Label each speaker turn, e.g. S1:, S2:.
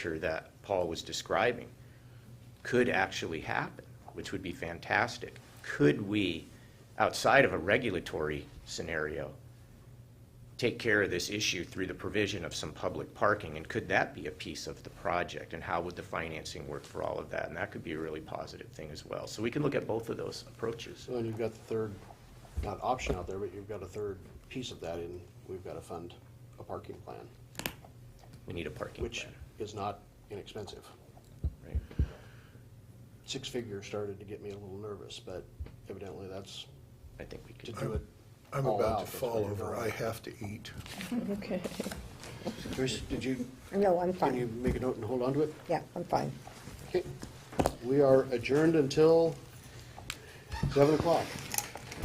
S1: picture that Paul was describing could actually happen, which would be fantastic. Could we, outside of a regulatory scenario, take care of this issue through the provision of some public parking? And could that be a piece of the project? And how would the financing work for all of that? And that could be a really positive thing as well. So we can look at both of those approaches.
S2: So then you've got the third, not option out there, but you've got a third piece of that in, we've got to fund a parking plan,
S1: We need a parking
S2: which
S1: plan.
S2: is not inexpensive.
S1: right?
S2: Six figures started to get me a little nervous, but evidently that's
S1: I think we
S2: to
S1: could.
S2: do it
S3: I'm
S2: all
S3: about
S2: out, Oh,
S3: to
S2: that's where
S3: fall
S2: you're
S3: over. I
S2: going.
S3: have to eat.
S4: Okay.
S2: Joyce, did you,
S4: No, I'm
S2: can you
S4: fine.
S2: make a note and hold on to it?
S4: Yeah, I'm fine.
S2: Okay. We are adjourned until seven o'clock.